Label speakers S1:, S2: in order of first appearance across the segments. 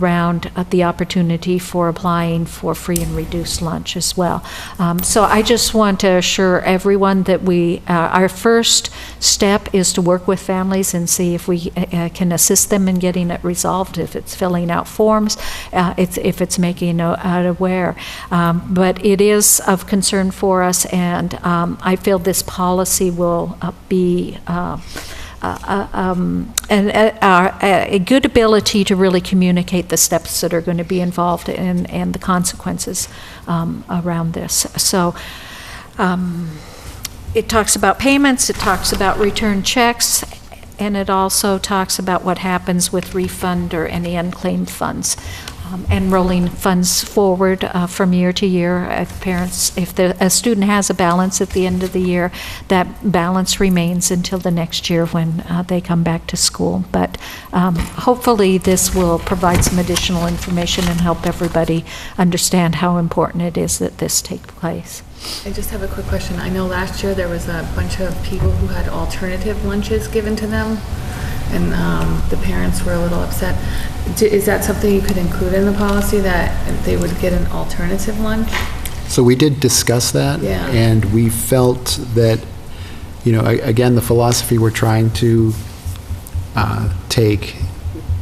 S1: around uh, the opportunity for applying for free and reduced lunch as well. Um, So I just want to assure everyone that we, uh, our first step is to work with families and see if we uh, uh, can assist them in getting it resolved, if it's filling out forms, uh, it's- if it's making uh, out aware. Um, But it is of concern for us, and um, I feel this policy will uh, be uh, uh, um, and uh, our- a a good ability to really communicate the steps that are going to be involved and, and the consequences um, around this. So um, it talks about payments, it talks about return checks, and it also talks about what happens with refund or any unclaimed funds. um, And rolling funds forward uh, from year to year. If parents, if the, a student has a balance at the end of the year, that balance remains until the next year when uh, they come back to school. But um, hopefully, this will provide some additional information and help everybody understand how important it is that this take place.
S2: I just have a quick question. I know last year there was a bunch of people who had alternative lunches given to them, and um, the parents were a little upset. D- Is that something you could include in the policy, that they would get an alternative lunch?
S3: So we did discuss that.
S2: Yeah.
S3: And we felt that, you know, a- again, the philosophy we're trying to uh, take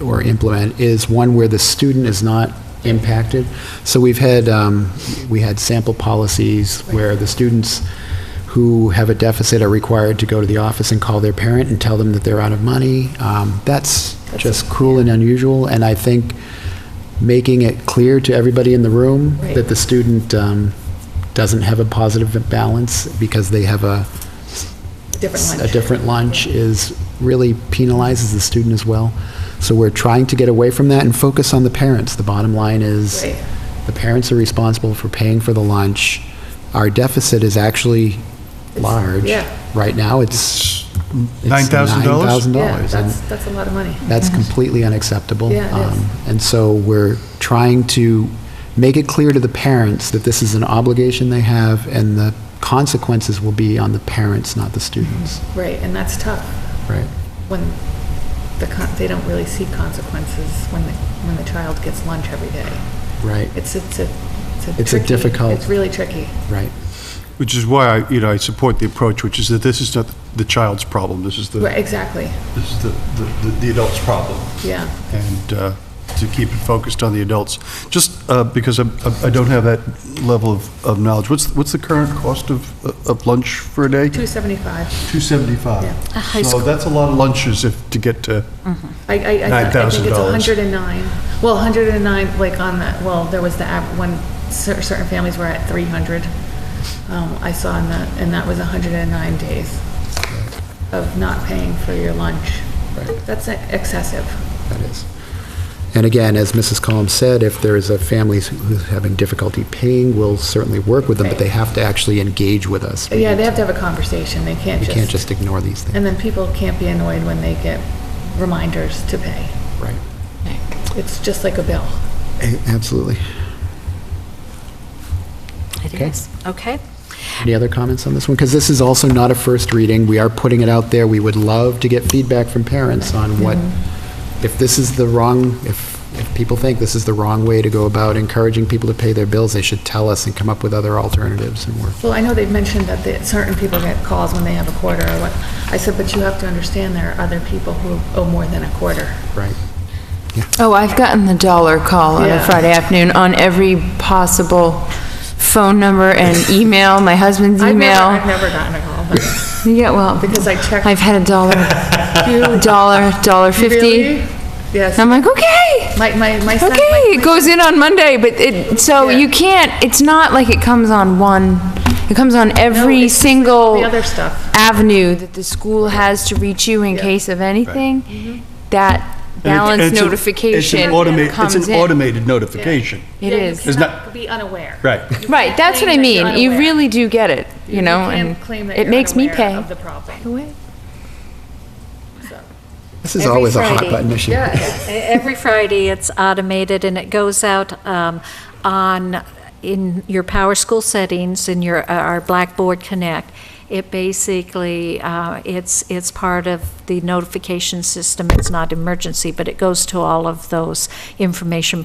S3: or implement is one where the student is not impacted. So we've had, um, we had sample policies where the students who have a deficit are required to go to the office and call their parent and tell them that they're out of money. Um, That's just cruel and unusual, and I think making it clear to everybody in the room
S2: Right.
S3: that the student um, doesn't have a positive balance because they have a,
S2: Different lunch?
S3: a different lunch is, really penalizes the student as well. So we're trying to get away from that and focus on the parents. The bottom line is,
S2: Right.
S3: the parents are responsible for paying for the lunch. Our deficit is actually large.
S2: yeah.
S3: Right now, it's. it's
S4: $9,000?
S2: Yeah,
S3: $9,000. and-
S2: that's, that's a lot of money.
S3: that's completely unacceptable.
S2: Yeah, it is.
S3: Um, And so we're trying to make it clear to the parents that this is an obligation they have, and the consequences will be on the parents, not the students.
S2: Right, and that's tough
S3: Right.
S2: when the, con- they don't really see consequences when the, when the child gets lunch every day.
S3: Right,
S2: It's, it's a, it's a
S3: It's a
S2: tricky-
S3: difficult-
S2: It's really tricky.
S3: right.
S4: Which is why, I you know, I support the approach, which is that this is not the child's problem, this is the,
S2: Right, exactly,
S4: this is the, the- the adult's problem.
S2: yeah.
S4: And uh, to keep it focused on the adults. Just uh, because I'm- I I don't have that level of, of knowledge, what's, what's the current cost of, of lunch for a day?
S2: 275.
S4: 275.
S2: Yeah.
S1: A high
S4: So
S1: school-
S4: that's a lot of lunches if, to get to,
S2: I, I, I thought- I think it's
S4: $9,000.
S2: 109. Well, 109, like on that, well, there was the, av- when cer- certain families were at 300. Um, I saw in that, and that was 109 days of not paying for your lunch.
S3: Right.
S2: That's e, excessive.
S3: That is. And again, as Mrs. Collins said, if there is a family who's having difficulty paying, we'll certainly work with them, but they have to actually engage with us. We
S2: Yeah, they have to have a conversation. They can't
S3: can't
S2: just,
S3: just ignore these things.
S2: and then people can't be annoyed when they get reminders to pay.
S3: Right.
S2: It's just like a bill.
S3: A- Absolutely.
S1: It
S3: Okay.
S1: is. Okay.
S3: Any other comments on this one? Because this is also not a first reading. We are putting it out there. We would love to get feedback from parents on what,
S1: Mm-hmm.
S3: if this is the wrong, if, if people think this is the wrong way to go about encouraging people to pay their bills, they should tell us and come up with other alternatives and work.
S2: Well, I know they've mentioned that the- certain people get calls when they have a quarter or what. I said, but you have to understand there are other people who owe more than a quarter.
S3: Right.
S5: Oh, I've gotten the dollar call on a
S2: Yeah.
S5: Friday afternoon on every possible phone number and email, my husband's
S2: I've never- I've
S5: email.
S2: never gotten a call, but
S5: Yeah, well,
S2: because I checked.
S5: I've had a dollar, dollar, dollar fifty.
S2: Really?
S5: And
S2: Yes.
S5: I'm like, oh, okay,
S2: My, my, my son. my-
S5: okay,
S2: my-
S5: it goes in on Monday, but it, so
S2: Yeah.
S5: you can't, it's not like it comes on one, it comes on every
S2: it's just
S5: single
S2: the other stuff.
S5: avenue that the school has to reach you in case of
S2: Mm-hmm.
S5: anything. That balance
S4: It's a- It's
S5: notification
S4: an automated, it's
S5: comes in.
S4: an automated notification.
S5: It
S2: Yeah, you
S5: is.
S4: It's
S2: cannot
S4: not-
S2: Be unaware.
S4: Right.
S5: Right, that's what I
S2: claim that you're
S5: mean. You
S2: unaware.
S5: really do get it, you know,
S2: can't
S5: and
S2: claim that
S5: it
S2: you're
S5: makes me
S2: unaware
S5: pay.
S2: Of the problem.
S3: This is
S1: Every
S3: always a hot
S1: Friday.
S3: button issue.
S1: E-, Every Friday, it's automated, and it goes out um, on, in your Power School settings, in your, our uh, Blackboard Connect, It basically, uh, it's, it's part of the notification system. It's not emergency, but it goes to all of those information